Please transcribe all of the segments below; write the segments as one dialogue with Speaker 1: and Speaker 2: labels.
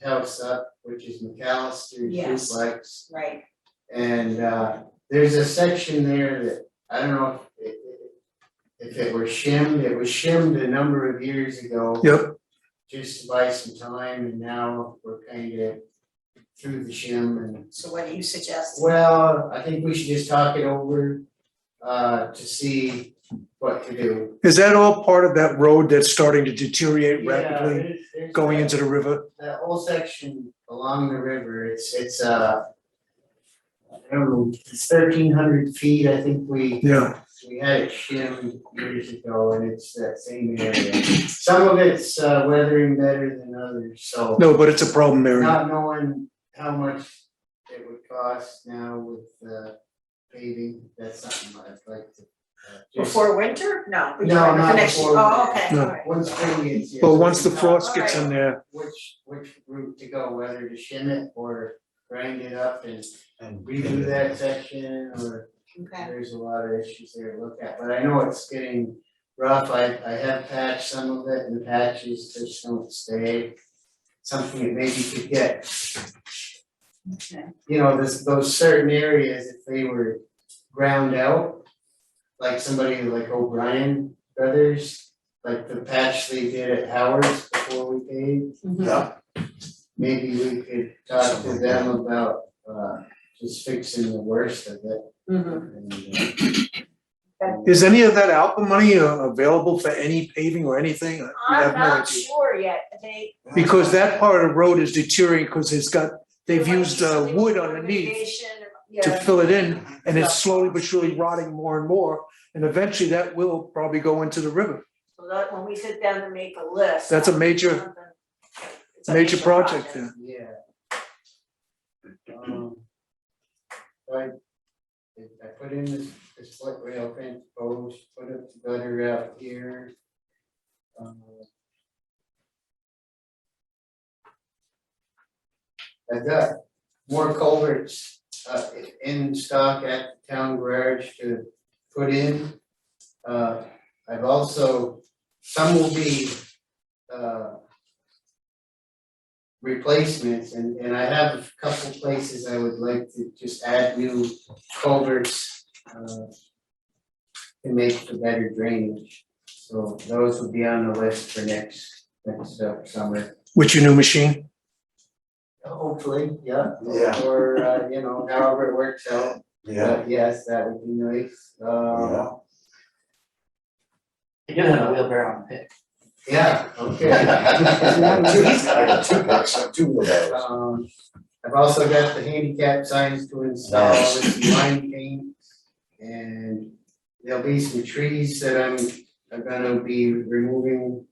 Speaker 1: house up, which is McAllister's
Speaker 2: Yes.
Speaker 1: duplex.
Speaker 2: right,
Speaker 1: And uh there's a section there that, I don't know if it if it were shimmed, it was shimmed a number of years ago.
Speaker 3: Yep.
Speaker 1: Just to buy some time and now we're kind of through the shim and
Speaker 2: so what do you suggest?
Speaker 1: well, I think we should just talk it over uh to see what to do.
Speaker 3: Is that all part of that road that's starting to deteriorate
Speaker 1: Yeah,
Speaker 3: rapidly,
Speaker 1: there's- there's
Speaker 3: going
Speaker 1: that-
Speaker 3: into the river?
Speaker 1: that whole section along the river, it's it's uh I don't know, it's thirteen hundred feet, I think we
Speaker 3: Yeah,
Speaker 1: we had it shimmed years ago and it's that same area. Some of it's uh weathering better than others, so
Speaker 3: no, but it's a problem area.
Speaker 1: not knowing how much it would cost now with uh paving, that's something I'd like to uh, just-
Speaker 2: Before winter? No. we
Speaker 1: No,
Speaker 2: try for
Speaker 1: not
Speaker 2: next year.
Speaker 1: before
Speaker 2: Oh,
Speaker 1: winter.
Speaker 2: okay,
Speaker 3: No.
Speaker 2: all right.
Speaker 1: Once spring gets here. so
Speaker 3: But once the
Speaker 1: we know
Speaker 3: frost gets in there,
Speaker 1: Which which route to go, whether to shim it or grind it up and and redo that section or
Speaker 2: Okay,
Speaker 1: there's a lot of issues there to look at, but I know it's getting rough, I I have patched some of it and the patches just don't stay. Something that maybe could get,
Speaker 2: okay,
Speaker 1: you know, this, those certain areas, if they were ground out. Like somebody like O'Brien Brothers, like the patch they did at Howard's before we paved.
Speaker 2: Mhm.
Speaker 1: Maybe we could talk to them about uh just fixing the worst of it
Speaker 2: Mhm.
Speaker 1: and uh,
Speaker 3: is any of that ALPA money uh, available for any paving or anything? You have
Speaker 2: I'm
Speaker 3: no
Speaker 2: not
Speaker 3: idea.
Speaker 2: sure yet, they.
Speaker 3: Because that part of the road is deteriorating because it's got, they've
Speaker 2: there might be
Speaker 3: used uh,
Speaker 2: something
Speaker 3: wood
Speaker 2: with
Speaker 3: underneath
Speaker 2: irrigation,
Speaker 3: to
Speaker 2: yeah.
Speaker 3: fill it in, and it's slowly but surely rotting more and more, and eventually that will probably go into the river.
Speaker 2: So that, when we sit down and make a list.
Speaker 3: That's a major,
Speaker 2: something- it's a
Speaker 3: major project there.
Speaker 1: Yeah. Um. I, I put in this, this split rail fence post, put up the gutter out here. Um, I've got more culverts, uh, in stock at the town garage to put in. Uh, I've also, some will be, uh, replacements and and I have a couple places I would like to just add new culverts uh to make for better drainage, so those will be on the list for next next uh, summer.
Speaker 3: with your new machine.
Speaker 1: Hopefully, yeah,
Speaker 4: Yeah.
Speaker 1: or uh you know, however it works out,
Speaker 4: Yeah,
Speaker 1: but yes, that would be nice,
Speaker 4: yeah.
Speaker 1: um
Speaker 5: I do have a wheelbarrow and a pick.
Speaker 1: yeah, okay.
Speaker 4: He's got Two bucks, two wheelbarrows.
Speaker 1: Um, I've also got the handicap signs to install with some line paint. And there'll be some trees that I'm, I'm gonna be removing.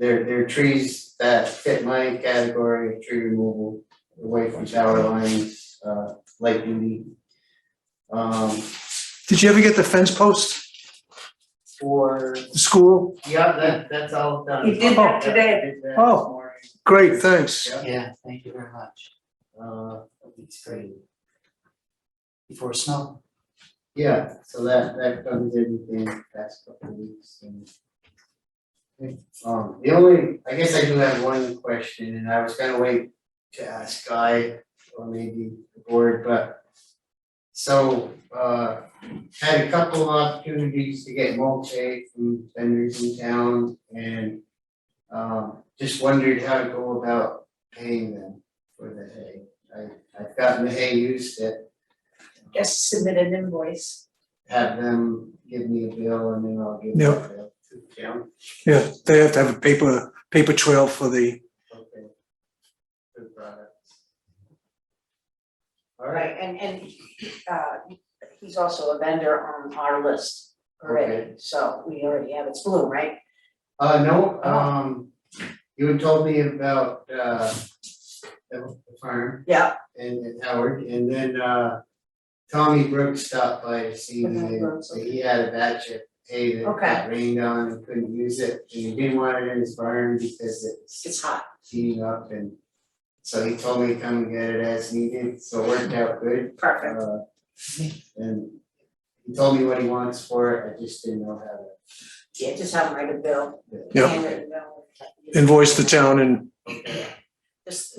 Speaker 1: They're, they're trees that fit my category of tree removal away from tower lines, uh, light duty. Um,
Speaker 3: Did you ever get the fence post,
Speaker 1: for,
Speaker 3: the school?
Speaker 1: yeah, that, that's all done.
Speaker 2: He did that today.
Speaker 1: Did that this
Speaker 3: Oh.
Speaker 1: morning.
Speaker 3: Great, thanks.
Speaker 1: Yeah.
Speaker 5: Yeah, thank you very much.
Speaker 1: Uh,
Speaker 5: It's great. Before snow.
Speaker 1: Yeah, so that that covers everything the past couple of weeks and. Um, the only, I guess I do have one question and I was gonna wait to ask Guy or maybe the board, but. So, uh, had a couple of opportunities to get mulch from vendors in town and. Um, just wondered how to go about paying them for the hay. I I've gotten the hay used at
Speaker 2: Just submit an invoice.
Speaker 1: have them give me a bill and then I'll give them
Speaker 3: Yeah.
Speaker 1: a bill to the town.
Speaker 3: Yeah, they have to have a paper, paper trail for the,
Speaker 1: Okay. Good product. All right,
Speaker 2: And, and, uh, he's also a vendor on our list already, so we already have, it's blue, right?
Speaker 1: uh, no, um, you had told me about, uh, the the farm
Speaker 2: Yeah.
Speaker 1: and and Howard, and then, uh, Tommy Brooks stopped by to see me, and so he had a batch of hay that got rained on and couldn't use it, and he didn't want it in his barn because it's
Speaker 2: It's hot.
Speaker 1: heating up and so he told me to come and get it as needed, so it worked out good.
Speaker 2: Perfect.
Speaker 1: Uh, and he told me what he wants for it, I just didn't know how to.
Speaker 2: Yeah, just have him write a bill.
Speaker 3: Yeah. uh,
Speaker 2: handwritten bill.
Speaker 3: invoice the town and
Speaker 2: Just